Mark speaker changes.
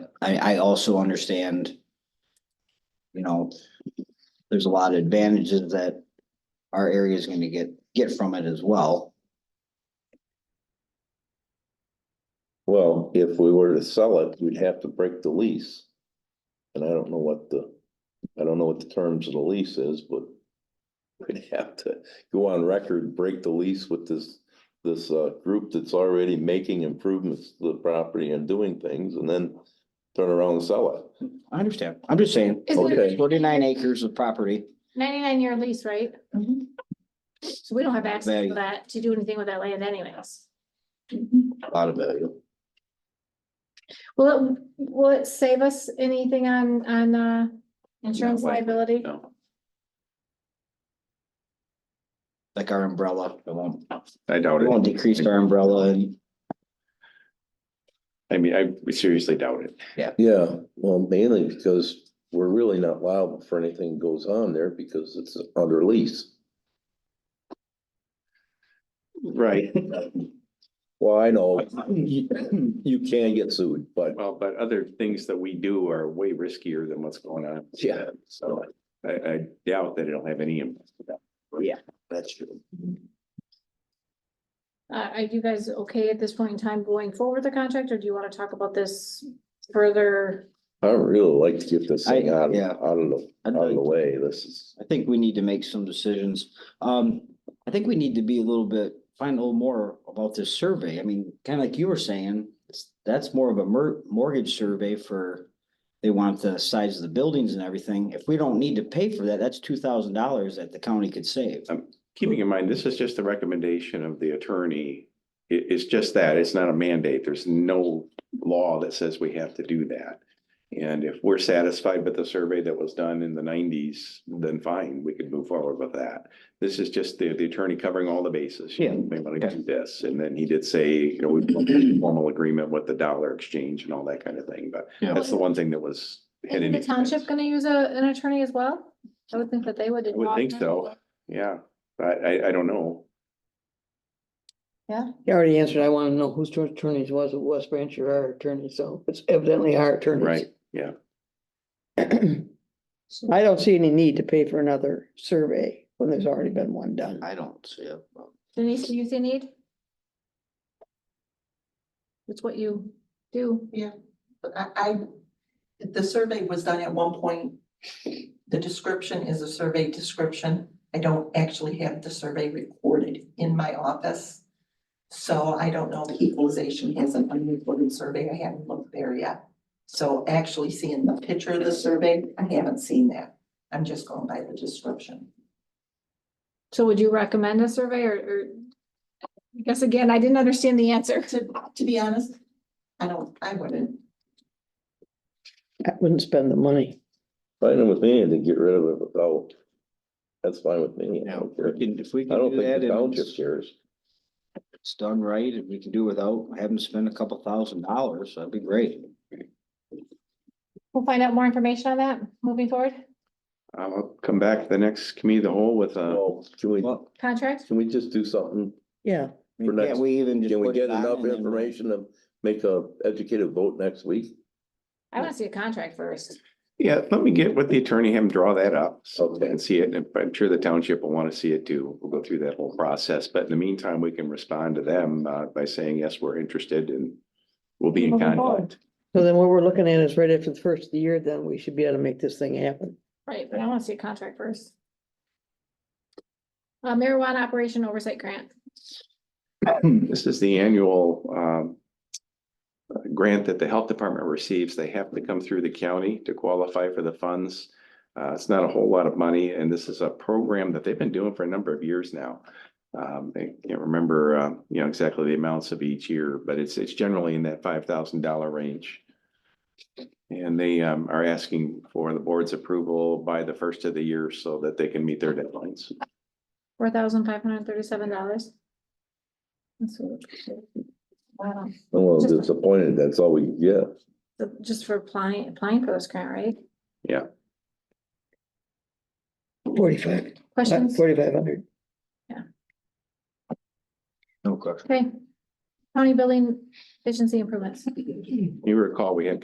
Speaker 1: I, I also understand. You know, there's a lot of advantages that our area is gonna get, get from it as well.
Speaker 2: Well, if we were to sell it, we'd have to break the lease. And I don't know what the, I don't know what the terms of the lease is, but we'd have to go on record, break the lease with this, this uh group that's already making improvements to the property and doing things and then turn around and sell it.
Speaker 1: I understand. I'm just saying,
Speaker 3: Is it
Speaker 2: Okay.
Speaker 3: a
Speaker 1: forty-nine acres of property.
Speaker 3: ninety-nine year lease, right? So we don't have access
Speaker 1: Value.
Speaker 3: to that, to do anything with that land anyways.
Speaker 2: A Lot of value.
Speaker 3: Will it, will it save us anything on, on, uh, insurance
Speaker 4: No way.
Speaker 3: liability?
Speaker 4: No,
Speaker 1: Like our umbrella, it won't,
Speaker 4: I doubt
Speaker 1: it won't
Speaker 4: it.
Speaker 1: decrease our umbrella and
Speaker 4: I mean, I seriously doubt it.
Speaker 2: Yeah, well, mainly because we're really not liable for anything goes on there because it's under lease.
Speaker 4: Right.
Speaker 2: Well, I know
Speaker 1: you
Speaker 2: you can get sued, but
Speaker 4: Well, but other things that we do are way riskier than what's going on.
Speaker 2: Yeah.
Speaker 4: So I, I doubt that it'll have any impact.
Speaker 2: that's true.
Speaker 3: Uh, are you guys okay at this point in time going forward with the contract, or do you want to talk about this further?
Speaker 2: I would really like to get this thing
Speaker 1: I-
Speaker 2: out, of-
Speaker 1: yeah.
Speaker 2: out of the,
Speaker 1: I'd
Speaker 2: out of
Speaker 1: like-
Speaker 2: the way, this is,
Speaker 1: I think we need to make some decisions. Um, I think we need to be a little bit, find a little more about this survey. I mean, kind of like you were saying, it's- that's more of a mer- mortgage survey for. They want the size of the buildings and everything. If we don't need to pay for that, that's two thousand dollars that the county could save.
Speaker 4: Keeping in mind, this is just a recommendation of the attorney. It, it's just that, it's not a mandate. There's no law that says we have to do that. And if we're satisfied with the survey that was done in the nineties, then fine, we could move forward with that. This is just the, the attorney covering all the bases.
Speaker 1: Yeah.
Speaker 4: They want to do this. And then he did say, you know, we want a formal agreement with the dollar exchange and all that kind of thing, but
Speaker 1: Yeah.
Speaker 4: that's the one thing that was. had
Speaker 3: Is the
Speaker 4: any-
Speaker 3: township gonna use a, an attorney as well? I would think that they would.
Speaker 4: I would think so. Yeah, but I, I don't know.
Speaker 5: You already answered. I want to know whose two attorneys was it, West Branch or our attorney, so it's evidently our attorney.
Speaker 4: Right, yeah.
Speaker 5: I don't see any need to pay for another survey when there's already been one done.
Speaker 1: I don't see it. but-
Speaker 3: Denise, do you see a need? It's what you do.
Speaker 6: Yeah, but I, I, the survey was done at one point. The description is a survey description. I don't actually have the survey recorded in my office. So I don't know if equalization has an unrecorded survey. I haven't looked there yet. So actually seeing the picture of the survey, I haven't seen that. I'm just going by the description.
Speaker 3: So would you recommend a survey or, or? I guess again, I didn't understand the answer.
Speaker 6: To, to be honest, I don't, I wouldn't.
Speaker 5: I wouldn't spend the money.
Speaker 2: fine with me to get rid of it without, that's fine with me. I
Speaker 1: Yeah,
Speaker 2: don't
Speaker 1: if
Speaker 2: care.
Speaker 1: we can, if we
Speaker 2: I
Speaker 1: can
Speaker 2: don't
Speaker 1: do that
Speaker 2: think the
Speaker 1: and
Speaker 2: township
Speaker 1: it's-
Speaker 2: cares.
Speaker 1: it's done right, and we can do without having to spend a couple thousand dollars, that'd be great.
Speaker 3: We'll find out more information on that moving forward.
Speaker 4: I'll come back to the next committee of the whole with a,
Speaker 2: Well, can we,
Speaker 1: uh, Well,
Speaker 3: Contract?
Speaker 2: can we just do something?
Speaker 1: I
Speaker 5: Yeah,
Speaker 1: mean,
Speaker 2: For next-
Speaker 1: can't we even just
Speaker 2: Can we
Speaker 1: put it
Speaker 2: get
Speaker 1: on
Speaker 2: enough
Speaker 1: and then-
Speaker 2: information to make a educated vote next week?
Speaker 3: I want to see a contract first.
Speaker 4: yeah, let me get with the attorney, have him draw that up. So
Speaker 2: Okay.
Speaker 4: and see it, and I'm sure the township will want to see it too. We'll go through that whole process, but in the meantime, we can respond to them uh by saying, yes, we're interested and. We'll be in
Speaker 3: Moving forward.
Speaker 4: contact.
Speaker 5: so then what we're looking at is right after the first of the year, then we should be able to make this thing happen.
Speaker 3: Right, but I want to see a contract first. Uh, marijuana operation oversight grant.
Speaker 4: This is the annual um. uh, Grant that the health department receives. They have to come through the county to qualify for the funds. Uh, it's not a whole lot of money and this is a program that they've been doing for a number of years now. Um, I can't remember, uh, you know, exactly the amounts of each year, but it's, it's generally in that five thousand dollar range. And they um, are asking for the board's approval by the first of the year so that they can meet their deadlines.
Speaker 3: Four thousand five hundred and thirty-seven dollars. Wow,
Speaker 2: I'm a little
Speaker 3: Just-
Speaker 2: disappointed, that's all we get.
Speaker 3: So just for applying, applying for this grant, right?
Speaker 5: Forty-five,
Speaker 3: Questions?
Speaker 5: forty-five hundred.
Speaker 1: No question.
Speaker 3: Okay. County building efficiency improvements.
Speaker 4: You recall, we had